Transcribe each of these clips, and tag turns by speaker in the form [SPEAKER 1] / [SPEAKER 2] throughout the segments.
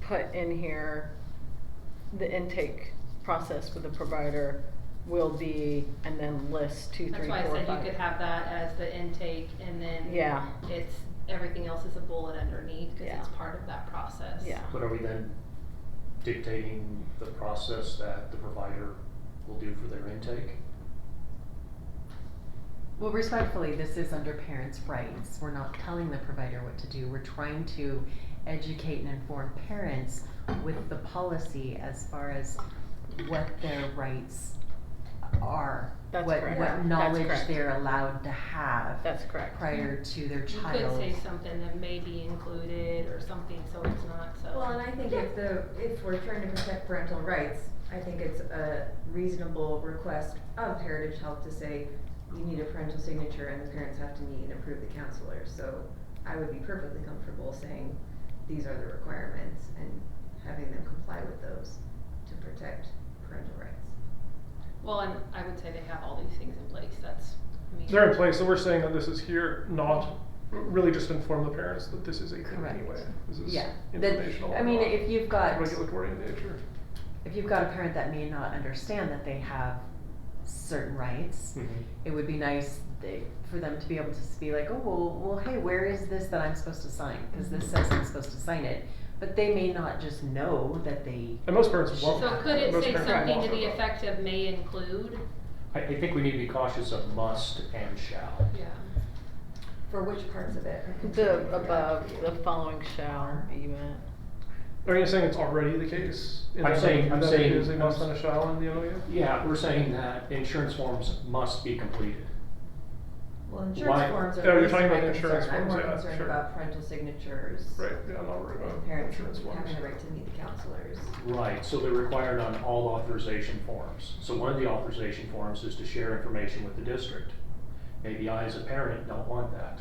[SPEAKER 1] put in here, the intake process with the provider will be, and then list two,
[SPEAKER 2] That's
[SPEAKER 1] three,
[SPEAKER 2] why I
[SPEAKER 1] four,
[SPEAKER 2] said you
[SPEAKER 1] five.
[SPEAKER 2] could have that as the intake and then
[SPEAKER 1] Yeah.
[SPEAKER 2] it's, everything else is a bullet underneath, cause
[SPEAKER 1] Yeah.
[SPEAKER 2] it's part of that process.
[SPEAKER 1] Yeah.
[SPEAKER 3] But are we then dictating the process that the provider will do for their intake?
[SPEAKER 4] Well, respectfully, this is under parents' rights. We're not telling the provider what to do. We're trying to educate and inform parents with the policy as far as what their rights are.
[SPEAKER 1] That's
[SPEAKER 4] what,
[SPEAKER 1] correct.
[SPEAKER 4] what
[SPEAKER 1] That's
[SPEAKER 4] knowledge
[SPEAKER 1] correct.
[SPEAKER 4] they're allowed to have
[SPEAKER 1] That's correct.
[SPEAKER 4] prior to their
[SPEAKER 2] You
[SPEAKER 4] child.
[SPEAKER 2] could say something that may be included or something, so it's not, so.
[SPEAKER 5] Well, and I think if the, if we're trying to protect parental rights, I think it's a reasonable request of Heritage Health to say, you need a parental signature and the parents have to meet and approve the counselor, so I would be perfectly comfortable saying, these are the requirements and having them comply with those to protect parental rights.
[SPEAKER 2] Well, and I would say they have all these things in place, that's, I mean.
[SPEAKER 6] They're in place, so we're saying that this is here, not really just inform the parents that this is a thing
[SPEAKER 4] Correct.
[SPEAKER 6] anyway. This is
[SPEAKER 4] Yeah. That-
[SPEAKER 6] informational.
[SPEAKER 4] I mean,
[SPEAKER 6] not
[SPEAKER 4] if you've got-
[SPEAKER 6] Regulatory in nature.
[SPEAKER 4] If you've got a parent that may not understand that they have certain rights,
[SPEAKER 6] Mm-hmm.
[SPEAKER 4] it would be nice they, for them to be able to s- be like, oh, well, well, hey, where is this that I'm supposed to sign? Because this says I'm supposed to sign it. But they may not just know that they.
[SPEAKER 6] And most parents won't.
[SPEAKER 2] So could it
[SPEAKER 6] most
[SPEAKER 2] say
[SPEAKER 6] parents
[SPEAKER 2] something
[SPEAKER 6] won't
[SPEAKER 2] to the
[SPEAKER 6] know that.
[SPEAKER 2] effect of may include?
[SPEAKER 3] I, I think we need to be cautious of must and shall.
[SPEAKER 2] Yeah.
[SPEAKER 5] For which parts of it?
[SPEAKER 1] The above, the following shall be met.
[SPEAKER 6] Are you saying it's already the case? in
[SPEAKER 3] I'm
[SPEAKER 6] that-
[SPEAKER 3] saying- I'm
[SPEAKER 6] that
[SPEAKER 3] saying-
[SPEAKER 6] It is a
[SPEAKER 3] I'm
[SPEAKER 6] must
[SPEAKER 3] s-
[SPEAKER 6] and a shall in the E MOU?
[SPEAKER 3] Yeah, we're saying that insurance forms must be completed.
[SPEAKER 5] Well,
[SPEAKER 3] Why-
[SPEAKER 5] insurance forms
[SPEAKER 6] Oh,
[SPEAKER 5] are
[SPEAKER 6] you're
[SPEAKER 5] at least
[SPEAKER 6] talking
[SPEAKER 5] my
[SPEAKER 6] about insurance
[SPEAKER 5] concern, I'm
[SPEAKER 6] forms,
[SPEAKER 5] more
[SPEAKER 6] yeah,
[SPEAKER 5] concerned
[SPEAKER 6] sure.
[SPEAKER 5] about parental signatures.
[SPEAKER 6] Right, yeah, I'm not worried
[SPEAKER 5] and
[SPEAKER 6] about
[SPEAKER 5] Parents
[SPEAKER 6] insurance
[SPEAKER 5] having
[SPEAKER 6] forms.
[SPEAKER 5] the right to meet the counselors.
[SPEAKER 3] Right, so they're required on all authorization forms. So one of the authorization forms is to share information with the district. Maybe I, as a parent, don't want that.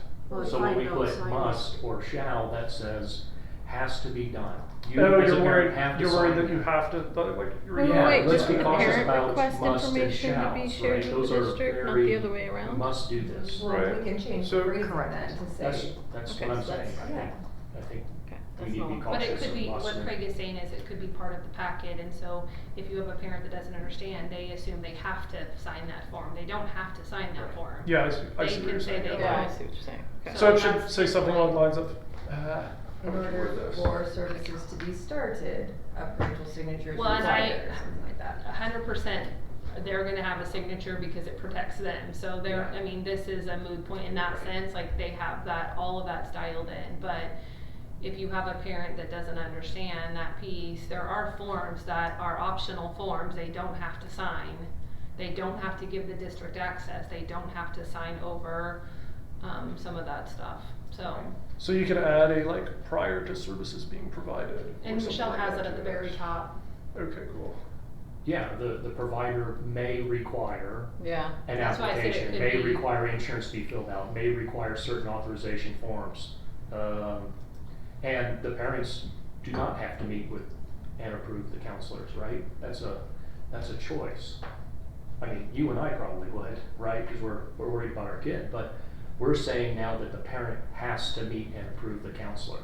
[SPEAKER 3] So when we put must or shall, that says has to be done. You
[SPEAKER 6] Oh,
[SPEAKER 3] as a parent
[SPEAKER 6] you're worried,
[SPEAKER 3] have to
[SPEAKER 6] you're worried
[SPEAKER 3] sign
[SPEAKER 6] that you have to, like, you're.
[SPEAKER 1] Wait, wait,
[SPEAKER 3] Yeah,
[SPEAKER 1] wait,
[SPEAKER 3] let's
[SPEAKER 1] just
[SPEAKER 3] be
[SPEAKER 1] the
[SPEAKER 3] cautious
[SPEAKER 1] parent
[SPEAKER 3] about
[SPEAKER 1] request
[SPEAKER 3] must and
[SPEAKER 1] information to be
[SPEAKER 3] shalls,
[SPEAKER 1] shared
[SPEAKER 3] right?
[SPEAKER 1] with
[SPEAKER 3] Those
[SPEAKER 1] the
[SPEAKER 3] are
[SPEAKER 1] district, not the
[SPEAKER 3] very-
[SPEAKER 1] other way around.
[SPEAKER 3] we Must do this.
[SPEAKER 5] Well,
[SPEAKER 6] Right.
[SPEAKER 5] we can change
[SPEAKER 6] So-
[SPEAKER 5] the phrasing
[SPEAKER 4] Correct.
[SPEAKER 5] then to
[SPEAKER 3] That's,
[SPEAKER 5] say,
[SPEAKER 3] that's
[SPEAKER 1] Okay,
[SPEAKER 3] what I'm
[SPEAKER 1] so
[SPEAKER 3] saying.
[SPEAKER 1] that's-
[SPEAKER 3] I
[SPEAKER 5] yeah.
[SPEAKER 3] think, I think
[SPEAKER 1] Okay,
[SPEAKER 3] we
[SPEAKER 1] that's
[SPEAKER 3] need to be
[SPEAKER 1] all.
[SPEAKER 2] But it
[SPEAKER 3] cautious
[SPEAKER 2] could
[SPEAKER 3] of
[SPEAKER 2] be,
[SPEAKER 3] must
[SPEAKER 2] what
[SPEAKER 3] and-
[SPEAKER 2] Craig is saying is it could be part of the packet, and so if you have a parent that doesn't understand, they assume they have to sign that form, they don't have to sign that
[SPEAKER 3] Right.
[SPEAKER 2] form.
[SPEAKER 6] Yeah, I see, I
[SPEAKER 2] They
[SPEAKER 6] see what
[SPEAKER 2] can
[SPEAKER 6] you're
[SPEAKER 2] say
[SPEAKER 6] saying.
[SPEAKER 2] they
[SPEAKER 6] yeah.
[SPEAKER 1] Yeah, I see what you're saying. Okay.
[SPEAKER 6] So it should
[SPEAKER 2] that's-
[SPEAKER 6] say something along the lines of, uh,
[SPEAKER 5] in
[SPEAKER 6] how would you word
[SPEAKER 5] order
[SPEAKER 6] this?
[SPEAKER 5] for services to be started, a parental signature is
[SPEAKER 2] Well, and
[SPEAKER 5] required,
[SPEAKER 2] I-
[SPEAKER 5] or something like that.
[SPEAKER 2] A hundred percent, they're gonna have a signature because it protects them, so they're,
[SPEAKER 3] Yeah.
[SPEAKER 2] I mean, this is a moot point in that sense, like, they have that, all of that's dialed in, but if you have a parent that doesn't understand that piece, there are forms that are optional forms, they don't have to sign. They don't have to give the district access, they don't have to sign over, um, some of that stuff, so.
[SPEAKER 6] So you could add a, like, prior to services being provided. or
[SPEAKER 2] And
[SPEAKER 6] something
[SPEAKER 2] Michelle
[SPEAKER 6] like
[SPEAKER 2] has
[SPEAKER 6] that
[SPEAKER 2] it at
[SPEAKER 6] to
[SPEAKER 2] the
[SPEAKER 6] this.
[SPEAKER 2] very top,
[SPEAKER 6] Okay, cool.
[SPEAKER 3] Yeah, the, the provider may require
[SPEAKER 1] Yeah,
[SPEAKER 3] an
[SPEAKER 2] That's why I said it
[SPEAKER 3] application,
[SPEAKER 2] could
[SPEAKER 3] may
[SPEAKER 2] be-
[SPEAKER 3] require insurance to be filled out, may require certain authorization forms. Um, and the parents do not have to meet with and approve the counselors, right? That's a, that's a choice. I mean, you and I probably would, right? Cause we're, we're worried about our kid, but we're saying now that the parent has to meet and approve the counselor.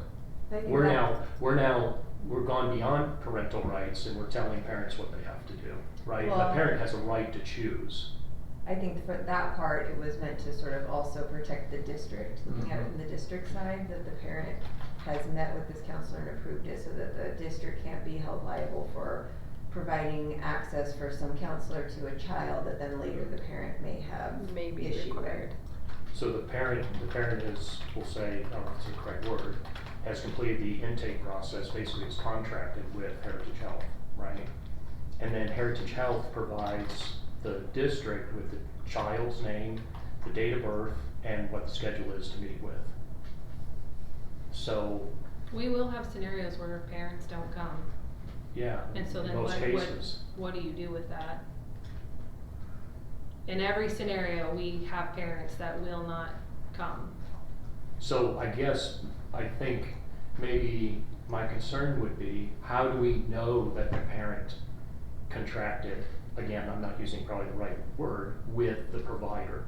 [SPEAKER 5] I think
[SPEAKER 3] We're
[SPEAKER 5] that-
[SPEAKER 3] now, we're now, we're gone beyond parental rights and we're telling parents what they have to do, right? The
[SPEAKER 5] Well-
[SPEAKER 3] parent has a right to choose.
[SPEAKER 5] I think for that part, it was meant to sort of also protect the district, looking at
[SPEAKER 6] Mm-hmm.
[SPEAKER 5] it from the district side, that the parent has met with this counselor and approved it, so that the district can't be held liable for providing access for some counselor to a child that then later the parent may have
[SPEAKER 1] maybe
[SPEAKER 5] issue with.
[SPEAKER 1] required.
[SPEAKER 3] So the parent, the parent is, we'll say, I don't know if it's the correct word, has completed the intake process, basically is contracted with Heritage Health, right? And then Heritage Health provides the district with the child's name, the date of birth, and what the schedule is to meet with. So,
[SPEAKER 2] we will have scenarios where parents don't come.
[SPEAKER 3] yeah, in
[SPEAKER 2] And so then
[SPEAKER 3] most
[SPEAKER 2] what-
[SPEAKER 3] cases.
[SPEAKER 2] what- what do you do with that? In every scenario, we have parents that will not come.
[SPEAKER 3] So I guess, I think maybe my concern would be, how do we know that the parent contracted, again, I'm not using probably the right word, with the provider?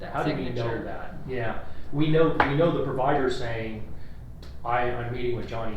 [SPEAKER 2] That
[SPEAKER 3] How do we know
[SPEAKER 2] signature.
[SPEAKER 3] that? Yeah, we know, we know the provider saying, I, I'm meeting with Johnny